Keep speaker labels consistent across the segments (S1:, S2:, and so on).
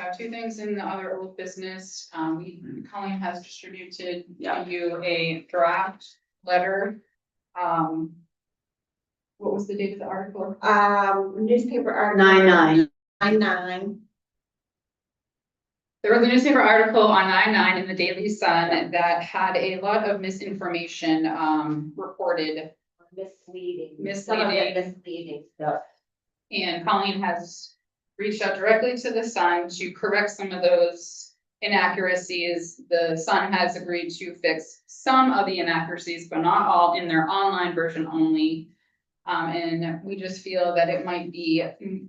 S1: have two things in the other old business. Um, we, Colleen has distributed to
S2: Yeah.
S1: you a draft letter. Um. What was the date of the article?
S3: Um, newspaper article.
S2: Nine nine,
S3: Nine nine.
S1: There was a newspaper article on nine nine in the Daily Sun that had a lot of misinformation, um, reported.
S3: Misleading.
S1: Misleading.
S3: Some of it Misleading stuff.
S1: And Colleen has reached out directly to the Sun to correct some of those inaccuracies. The Sun has agreed to fix some of the inaccuracies, but not all, in their online version only. Um, and we just feel that it might be mm,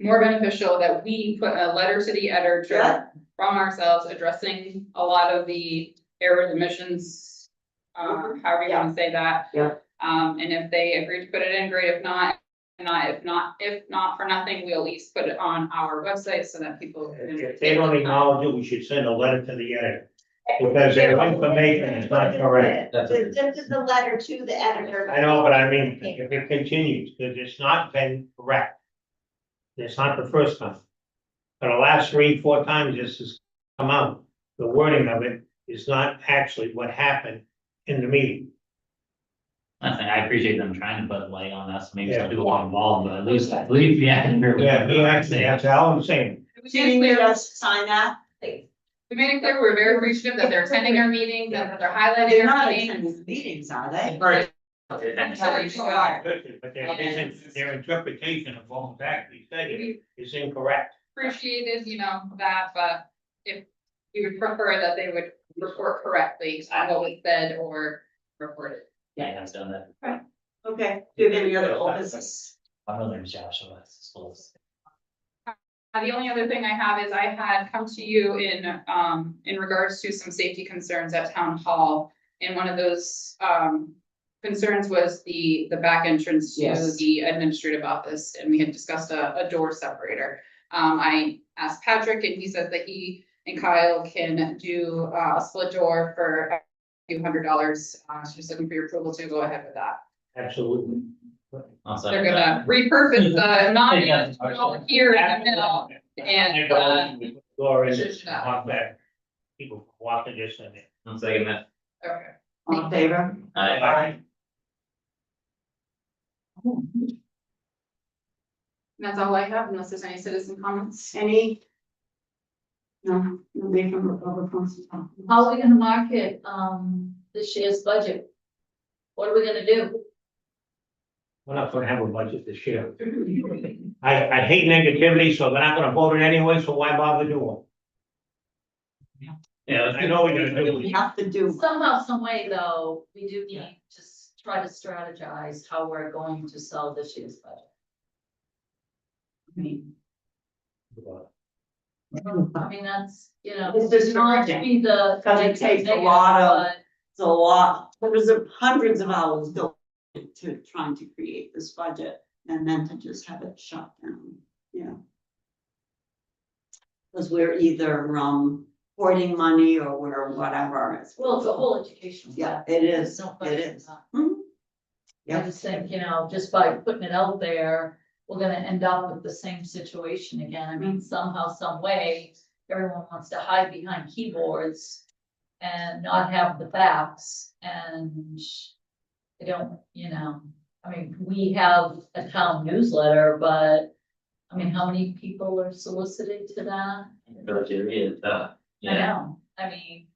S1: more beneficial that we put a letter to the editor
S2: Yeah.
S1: from ourselves addressing a lot of the errors, omissions, uh, however you want to say that.
S2: Yeah.
S1: Um, and if they agree to put it in, great. If not, not, if not, if not for nothing, we'll at least put it on our website so that people. can-
S4: If they don't acknowledge it, we should send a letter to the editor. Because their information is not correct.
S5: That's
S3: This
S5: okay.
S3: this is the letter to the editor.
S4: I know, but I mean, if it continues, because it's not been correct. It's not the first time. For the last three, four times this has come out, the wording of it is not actually what happened in the meeting.
S5: Listen, I appreciate them trying to put light on us, maybe
S4: Yeah.
S5: some people aren't involved, but at least, at least, yeah.
S4: Yeah, you actually, that's all I'm saying.
S1: We
S2: do
S1: made it
S2: you need
S1: clear-
S2: us to sign that? They-
S1: we made it clear, we're very appreciative that they're attending our meetings and that they're
S2: They're
S1: highlighting our
S2: not
S1: meetings.
S2: attending meetings, are they?
S5: Right.
S4: But their, their interpretation of what was actually
S1: We
S4: stated is incorrect.
S1: appreciated, you know, that, but if we would prefer that they would report correctly on what was said or reported.
S5: Yeah, I've done that.
S2: Okay, do you have any other old business?
S5: I know there's Joshua, it's close.
S1: Uh, the only other thing I have is I had come to you in, um, in regards to some safety concerns at town hall. And one of those, um, concerns was the, the back entrance to
S2: Yes.
S1: the administrative office, and we had discussed a, a door separator. Um, I asked Patrick, and he said that he and Kyle can do uh, a split door for a few hundred dollars. Uh, so just looking for your approval to go ahead with that.
S4: Absolutely.
S5: Also,
S1: They're gonna repurpose the non here in the middle. And, uh,
S4: Door in,
S1: Shut up.
S4: walk back. People walking this and that.
S5: One second, that.
S1: Okay.
S2: All in favor?
S5: I,
S2: Aye.
S1: And That's all I have, unless there's any citizen comments.
S2: Any? No, nobody from Republic wants to talk.
S6: How are we gonna market, um, this year's budget? What are we gonna do?
S4: We're not gonna have a budget this year. I, I hate negativity, so they're not gonna vote it anyway, so why bother doing
S5: yeah.
S4: I know what you're gonna do.
S2: We have to do,
S6: Somehow, some way though, we do need to s- try to strategize how we're going to sell this year's budget.
S2: I mean,
S4: it?
S6: I mean, that's, you know.
S2: Mm-hmm. It's just
S6: Not to
S2: urgent.
S6: be the.
S2: Because it takes a lot of- it's a lot, there was a- hundreds of hours built into trying to create this budget and then to just have it shut down, yeah. Because we're either, um, hoarding money or we're whatever. It's-
S6: but- Well, it's a whole educational.
S2: Yeah,
S6: factor.
S2: it is,
S6: There's no
S2: it
S6: question
S2: is.
S6: about
S2: Mhm.
S6: it. I
S2: Yeah,
S6: just think, you know, just by putting it out there, we're gonna end up with the same situation again. I mean,
S2: Mm-hmm.
S6: somehow, some way, everyone wants to hide behind keyboards and not have the facts and I don't, you know, I mean, we have a town newsletter, but I mean, how many people are solicited to that?
S5: But it is, uh,
S6: I
S5: yeah.
S6: know, I mean.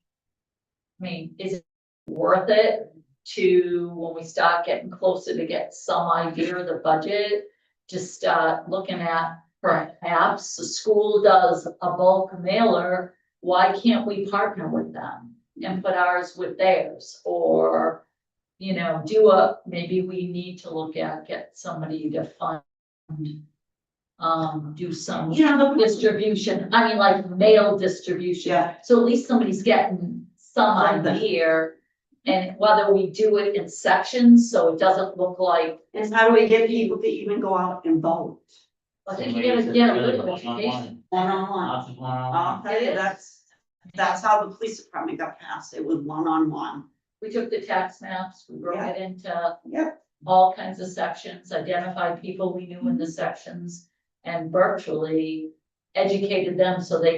S6: I mean, is it worth it to, when we start getting closer to get some idea of the budget? Just start looking at perhaps the school does a bulk mailer, why can't we partner with them? And put ours with theirs, or, you know, do a, maybe we need to look at, get somebody to fund. Um, do some
S2: you know, the.
S6: distribution, I mean, like mail distribution.
S2: Yeah.
S6: So at least somebody's getting some
S2: Something.
S6: idea. And whether we do it in sections, so it doesn't look like,
S2: Is how do we get people to even go out and vote?
S6: I think you gotta get a little education.
S2: One on one.
S5: Lots of one on one.
S2: I'll tell you, that's, that's how the police department got passed. It was one on one.
S6: We took the tax maps, we broke it into
S2: Yep.
S6: all kinds of sections, identified people we knew in the sections. And virtually educated them so they